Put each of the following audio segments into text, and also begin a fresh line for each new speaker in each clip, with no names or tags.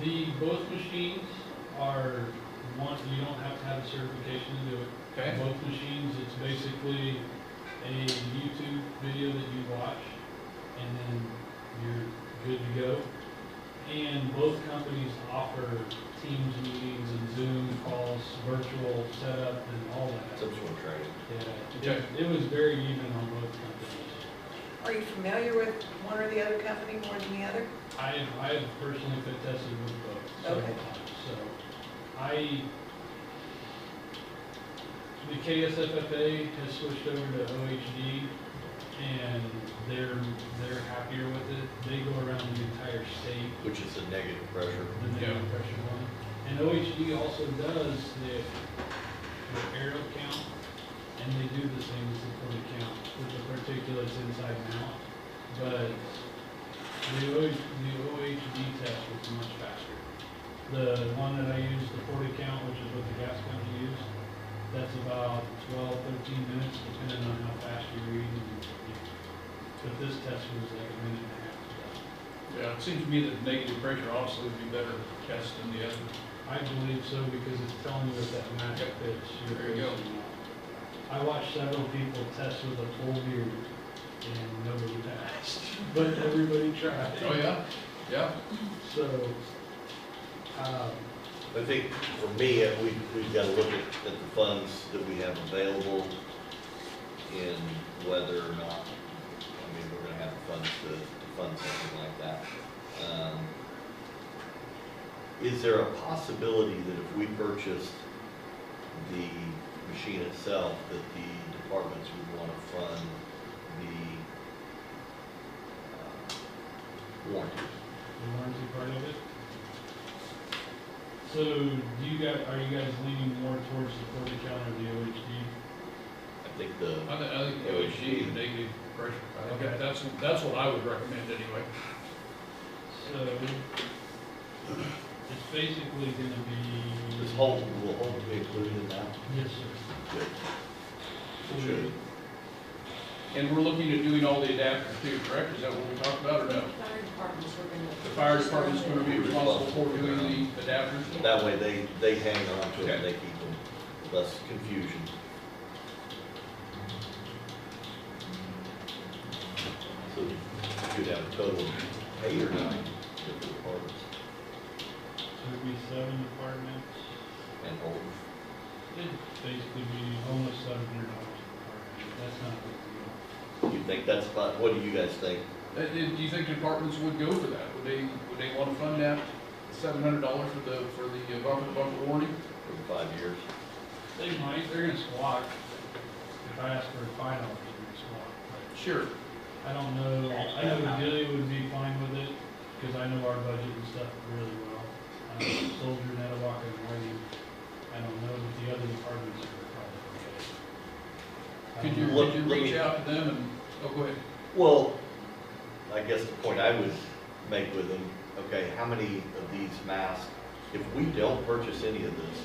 The, both machines are, one, you don't have to have a certification to do it.
Okay.
Both machines, it's basically a YouTube video that you watch, and then you're good to go. And both companies offer Teams meetings and Zoom calls, virtual setup and all that.
Some sort of training.
Yeah,
Okay.
it- it was very even on both companies.
Are you familiar with one or the other company more than the other?
I have, I have personally been tested with both several
Okay.
times, so I, the KSFFA has switched over to OHD and they're, they're happier with it. They go around the entire state,
Which is a negative pressure.
the
Yeah.
negative pressure one. And OHD also does the, the aerial count and they do the same as the fluid count with the particulates inside and out. But the O, the OHD test was much faster. The one that I used, the forty count, which is what the gas company used, that's about 12, 13 minutes, depending on how fast you read. and if- But this test was like a minute and a half.
Yeah, it seems to me that negative pressure obviously would be better test than the other.
I believe so because it's telling you if that match
Yep.
fits. your
There you go.
patient. I watched several people test with a full beard and nobody passed, but everybody tried.
Oh, yeah, yeah.
So, um,
I think for me, uh, we, we've got to look at, at the funds that we have available and whether or not, I mean, we're going to have the funds to, to fund something like that. Um, Is there a possibility that if we purchased the machine itself, that the departments would want to fund the uh, warranty?
the warranty part of it. So do you guys, are you guys leaning more towards the forty count or the OHD?
I think the.
I think, I think it would be the negative pressure. I think that- that's, that's what I would recommend anyway.
So it's basically gonna be.
This whole, will whole be included in that?
Yes, sir.
Good.
Should. And we're looking at doing all the adapters too, correct? Is that what we talked about or no?
Fire departments were gonna.
The fire department's gonna be responsible for doing the adapters?
That way they, they hang on to it, and they keep them, less confusion. So you could have a total of eight or nine different departments
So it'd be seven departments.
and hold.
It'd basically be almost seven hundred dollars per department. That's not a big deal.
You think that's about, what do you guys think?
Uh, uh, Do you think departments would go for that? Would they, would they wanna fund that seven hundred dollars for the, for the bumper to bumper warranty?
For the five years?
They might, they're gonna squawk. If I ask for five dollars, they're gonna squawk, but.
Sure.
I don't know, I know Delia would be fine with it, because I know our budget and stuff really well. Um, Soldier, Netawaka, and Whiting, I don't know, but the other departments are probably okay. I
Could
don't
you,
know.
could you reach out to them and, oh, go ahead.
Well, I guess the point I would make with them, okay, how many of these masks, if we don't purchase any of this,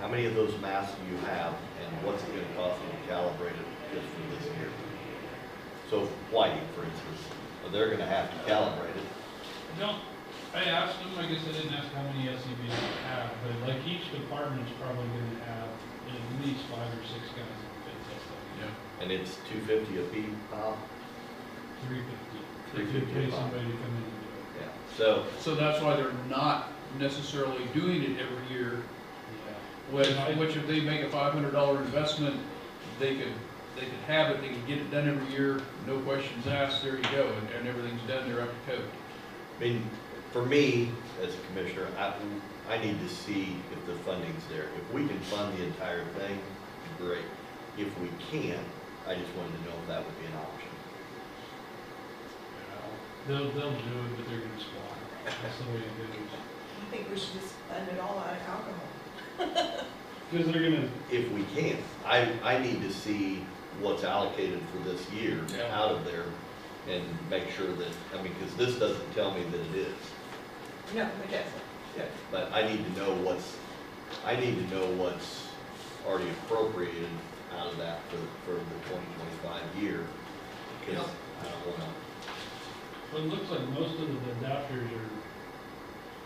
how many of those masks do you have, and what's it gonna cost them to calibrate it just for this year? So Whiting, for instance, well, they're gonna have to calibrate it,
I Don't, I asked them, I guess I didn't ask how many SCBs they have, but like each department's probably gonna have at least five or six guys that fit tested.
and it's two fifty a piece, pop?
Three fifty.
Three
If you
fifty
pay
a pop.
somebody to come in and do it.
Yeah, so,
So that's why they're not necessarily doing it every year,
Yeah.
which, which if they make a five hundred dollar investment, they could, they could have it, they could get it done every year, no questions asked, there you go, and, and everything's done, they're up to code.
I mean, for me, as a commissioner, I, I need to see if the funding's there. If we can fund the entire thing, great. If we can't, I just wanted to know if that would be an option.
They'll, they'll do it, but they're gonna squawk. That's the way it goes.
I think we should just fund it all out of alcohol.
Because they're gonna,
If we can, I, I need to see what's allocated for this year
Yeah.
out of there and make sure that, I mean, because this doesn't tell me that it is.
No, it doesn't.
Yeah. But I need to know what's, I need to know what's already appropriated out of that for, for the twenty twenty-five year. Cause I don't wanna,
well, it looks like most of the adapters are